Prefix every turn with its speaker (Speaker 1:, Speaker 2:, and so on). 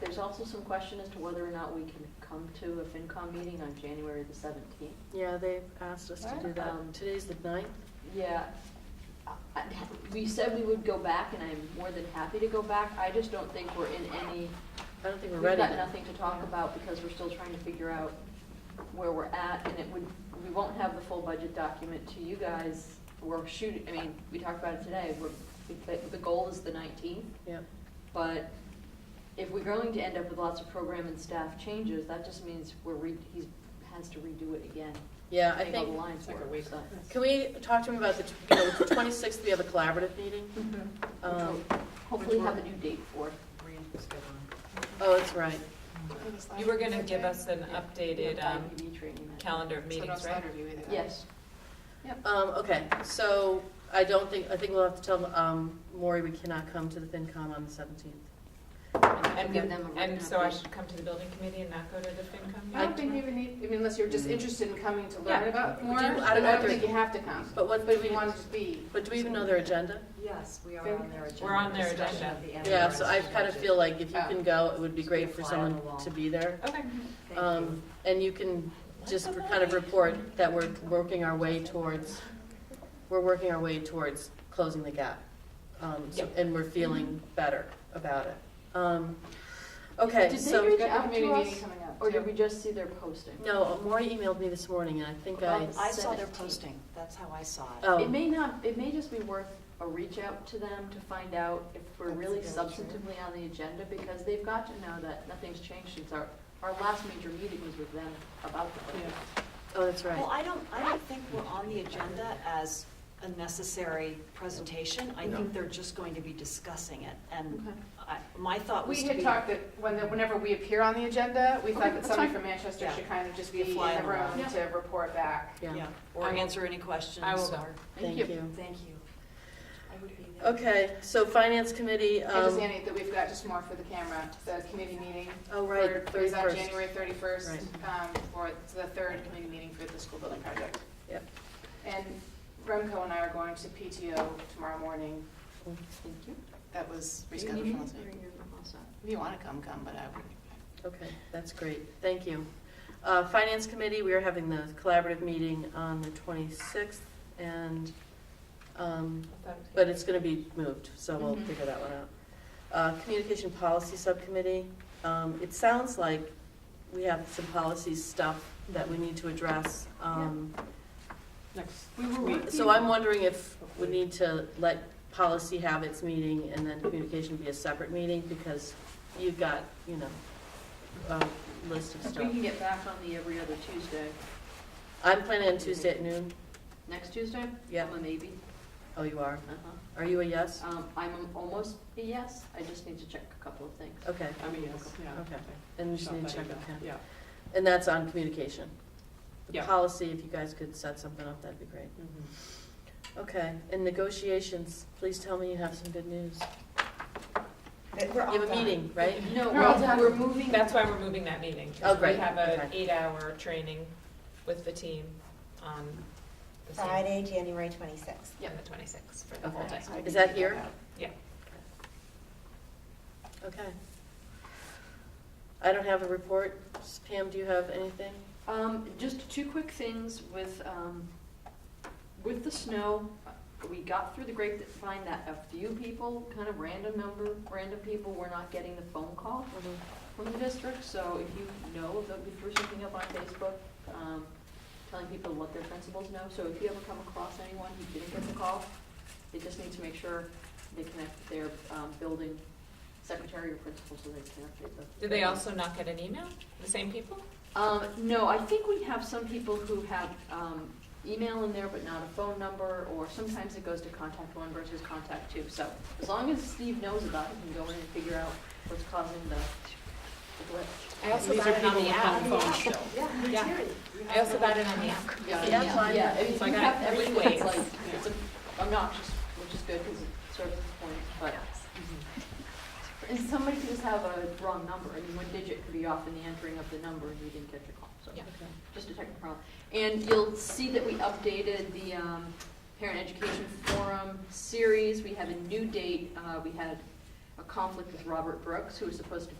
Speaker 1: there's also some question as to whether or not we can come to a FinCom meeting on January the seventeenth.
Speaker 2: Yeah, they've asked us to do that.
Speaker 1: Um,
Speaker 2: Today's the ninth.
Speaker 1: Yeah, I- I- we said we would go back, and I'm more than happy to go back, I just don't think we're in any,
Speaker 2: I don't think we're
Speaker 1: we've
Speaker 2: ready.
Speaker 1: got
Speaker 2: yet.
Speaker 1: nothing to talk about, because we're still trying to figure out where we're at, and it would, we won't have the full budget document to you guys, we're shooting, I mean, we talked about it today, we're, the- the goal is the nineteenth,
Speaker 2: Yep.
Speaker 1: but if we're going to end up with lots of program and staff changes, that just means we're re, he's, has to redo it again.
Speaker 2: Yeah, I
Speaker 1: Make all the
Speaker 2: think,
Speaker 1: lines
Speaker 3: Like a
Speaker 1: work,
Speaker 3: week.
Speaker 1: so.
Speaker 2: can we talk to him about the, tw- you know, the twenty-sixth, we have a collaborative meeting? Um,
Speaker 1: Which we'll Hopefully have a new date for.
Speaker 2: Oh, that's right.
Speaker 3: You were gonna give us an updated,
Speaker 1: Yeah,
Speaker 3: um,
Speaker 1: IPV training that-
Speaker 3: calendar of meetings, right?
Speaker 1: Yes,
Speaker 2: Um, okay, so I don't think, I think we'll have to tell, um, Maury we cannot come to the FinCom on the seventeenth.
Speaker 3: And,
Speaker 1: Give them a
Speaker 3: we-
Speaker 1: written
Speaker 3: and so I
Speaker 1: update.
Speaker 3: should come to the building committee and not go to the FinCom?
Speaker 4: I don't think
Speaker 3: meeting?
Speaker 4: you even need, I mean, unless you're just interested in coming to learn
Speaker 3: Yeah.
Speaker 4: about more,
Speaker 2: do- I don't know
Speaker 4: I
Speaker 2: if
Speaker 4: don't think
Speaker 2: there's-
Speaker 4: you have to come.
Speaker 2: But what,
Speaker 4: But if you want to just be,
Speaker 2: but do we even know their agenda?
Speaker 5: Yes, we are
Speaker 4: Very-
Speaker 5: on their agenda.
Speaker 3: We're on their
Speaker 5: Discussion
Speaker 3: agenda.
Speaker 5: of the annual
Speaker 2: Yeah, so I
Speaker 5: budget.
Speaker 2: kind of feel like if you
Speaker 4: Oh.
Speaker 2: can go, it would be
Speaker 5: Just
Speaker 2: great
Speaker 5: be a
Speaker 2: for
Speaker 5: fly
Speaker 2: someone
Speaker 5: on the wall.
Speaker 2: to be there.
Speaker 3: Okay.
Speaker 5: Thank you.
Speaker 2: Um, and you can just re- kind of report that we're working our way towards, we're working our way towards closing the gap. Um, so- and we're feeling better about it. Um, okay,
Speaker 1: Did they
Speaker 2: so,
Speaker 1: reach
Speaker 4: we've got
Speaker 1: out
Speaker 4: the
Speaker 1: to
Speaker 4: community
Speaker 1: us?
Speaker 4: meeting coming up.
Speaker 1: or
Speaker 4: too.
Speaker 1: did we just see their posting?
Speaker 2: no, Maury emailed me this morning and I think I,
Speaker 1: Well,
Speaker 5: Oh, I saw their
Speaker 1: 17.
Speaker 5: posting, that's how I saw it.
Speaker 1: It
Speaker 2: oh,
Speaker 1: may not, it may just be worth a reach out to them to find out if we're
Speaker 5: That's
Speaker 1: really
Speaker 5: very true.
Speaker 1: substantively on the agenda, because they've got to know that nothing's changed since our, our last major meeting was with them about the budget.
Speaker 2: oh, that's
Speaker 5: Well,
Speaker 2: right.
Speaker 5: I don't, I don't think we're on the agenda as a necessary presentation. I think they're just going to be discussing it. And
Speaker 1: Okay.
Speaker 5: I, my thought was
Speaker 4: We
Speaker 5: to
Speaker 4: had
Speaker 5: be,
Speaker 4: talked that when, the- whenever we appear on the agenda, we
Speaker 1: Okay,
Speaker 4: thought that
Speaker 1: that's
Speaker 4: somebody
Speaker 1: fine.
Speaker 4: from Manchester
Speaker 5: Yeah.
Speaker 4: should kind of just
Speaker 5: Be
Speaker 4: be
Speaker 5: a
Speaker 4: in
Speaker 5: fly on
Speaker 4: the
Speaker 5: the wall.
Speaker 4: room to report back.
Speaker 5: yeah,
Speaker 2: Yeah,
Speaker 5: or
Speaker 3: I will-
Speaker 5: answer any questions.
Speaker 3: I will go.
Speaker 5: or-
Speaker 2: thank you.
Speaker 5: Thank you. I would be there.
Speaker 2: Okay, so finance committee,
Speaker 4: I just
Speaker 2: um,
Speaker 4: annotate that we've got just more for the camera, the committee meeting.
Speaker 2: oh, right,
Speaker 4: for- Is on
Speaker 2: thirty-first.
Speaker 4: January thirty-first,
Speaker 2: Right.
Speaker 4: um, for the third committee meeting for the school building project.
Speaker 2: Yep.
Speaker 4: And Remco and I are going to PTO tomorrow morning.
Speaker 1: Thank you.
Speaker 4: That was
Speaker 1: Do you need
Speaker 4: rescheduled
Speaker 1: me?
Speaker 4: from last week.
Speaker 1: Or you're all set?
Speaker 4: If you want to come, come, but I wouldn't.
Speaker 2: Okay, that's great, thank you. Uh, Finance Committee, we are having the collaborative meeting on the 26th, and, um, but it's going to be moved, so we'll
Speaker 4: Mhm.
Speaker 2: figure that one out. Uh, Communication Policy Subcommittee, um, it sounds like we have some policy stuff that we need to address. um,
Speaker 1: We were working.
Speaker 2: So I'm wondering if we need to let policy have its meeting and then communication be a separate meeting, because you've got, you know, a list of
Speaker 1: If
Speaker 2: stuff.
Speaker 1: we can get back on the every other Tuesday,
Speaker 2: I'm planning on Tuesday at noon.
Speaker 1: next Tuesday?
Speaker 2: Yeah.
Speaker 1: I'm a maybe,
Speaker 2: Oh, you are?
Speaker 1: uh-huh.
Speaker 2: Are you a yes?
Speaker 1: Um, I'm almost a yes, I just need to check a couple of things.
Speaker 2: Okay,
Speaker 6: I mean, yes, yeah.
Speaker 2: okay. And you just need to check, okay.
Speaker 6: Yeah,
Speaker 2: And that's on communication. The
Speaker 6: Yeah.
Speaker 2: policy, if you guys could set something up, that'd be great.
Speaker 4: Mm-hmm.
Speaker 2: Okay, and negotiations, please tell me you have some good news.
Speaker 5: We're
Speaker 2: You have a
Speaker 5: all done.
Speaker 2: meeting, right?
Speaker 1: No,
Speaker 4: We're all
Speaker 1: we're,
Speaker 4: done.
Speaker 1: we're moving,
Speaker 3: That's why we're moving that meeting. 'cause
Speaker 2: Oh, great.
Speaker 3: We have an
Speaker 2: Okay.
Speaker 3: eight-hour training with the team on the same-
Speaker 7: Friday, January 26th.
Speaker 3: Yeah, the twenty-sixth for the whole
Speaker 2: Okay.
Speaker 3: day.
Speaker 2: Is that here?
Speaker 3: Yeah.
Speaker 2: Okay. I don't have a report. Pam, do you have anything?
Speaker 1: um, just two quick things with, um, with the snow. We got through the grapevine that a few people, kind of random number, random people were not getting the phone call from the district. So if you know, they'll be through something up on Facebook, um, telling people what their principals know. So if you ever come across anyone who didn't get the call, they just need to make sure they connect with their, um, building secretary or principal so they can update them.
Speaker 3: Did they also not get an email? The same people?
Speaker 1: Um, no, I think we have some people who have, um, email in there but not a phone number, or sometimes it goes to contact one versus contact two. So as long as Steve knows about it, he can go in and figure out what's causing the the glitch.
Speaker 3: I also
Speaker 6: These
Speaker 3: got
Speaker 6: are
Speaker 3: it on
Speaker 6: people
Speaker 3: the
Speaker 6: with
Speaker 3: app.
Speaker 6: home phones still.
Speaker 3: Yeah. I also got it on the app.
Speaker 1: Yeah,
Speaker 2: Yeah, fine.
Speaker 1: Yeah, I mean,
Speaker 3: So I
Speaker 1: we
Speaker 3: got
Speaker 1: have
Speaker 3: it three
Speaker 1: everything that's
Speaker 3: ways.
Speaker 1: like, it's a- obnoxious, which is good because it serves its point, but. And somebody could just have a wrong number, I mean, one digit could be off in the entering of the number and you didn't catch your call, so.
Speaker 3: Yeah.
Speaker 2: Okay.
Speaker 1: just a technical problem. And you'll see that we updated the um, Parent Education Forum series. We have a new date. Uh, We had a conflict with Robert Brooks, who was supposed to